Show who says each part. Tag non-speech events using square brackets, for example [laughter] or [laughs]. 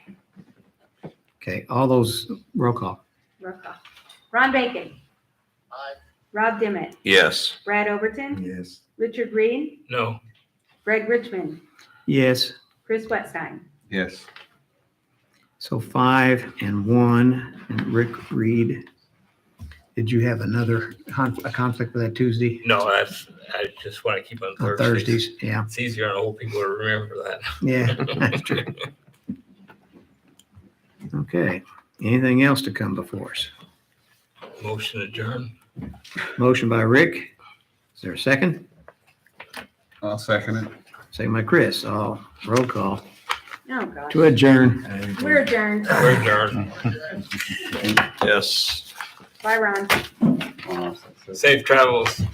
Speaker 1: Okay, all those, roll call.
Speaker 2: Roll call. Ron Bacon.
Speaker 3: Aye.
Speaker 2: Rob Dimmitt.
Speaker 4: Yes.
Speaker 2: Brad Overton.
Speaker 3: Yes.
Speaker 2: Richard Reed.
Speaker 4: No.
Speaker 2: Greg Richmond.
Speaker 1: Yes,
Speaker 2: Chris Wetstein.
Speaker 3: Yes.
Speaker 1: so five and one, and Rick Reed. Did you have another, con- a conflict with that Tuesday?
Speaker 5: No, that's, I just want to keep on
Speaker 1: On
Speaker 5: Thursdays.
Speaker 1: Thursdays, yeah,
Speaker 5: It's easier on old people to remember that.
Speaker 1: yeah, [laughs] that's true. Okay, anything else to come before us?
Speaker 5: Motion adjourned.
Speaker 1: Motion by Rick. Is there a second?
Speaker 3: I'll second it.
Speaker 1: Second by Chris. Oh, roll call
Speaker 2: Oh, gosh.
Speaker 1: to adjourn.
Speaker 2: We're adjourned.
Speaker 5: We're adjourned.
Speaker 4: Yes.
Speaker 2: Bye, Ron.
Speaker 5: Safe travels.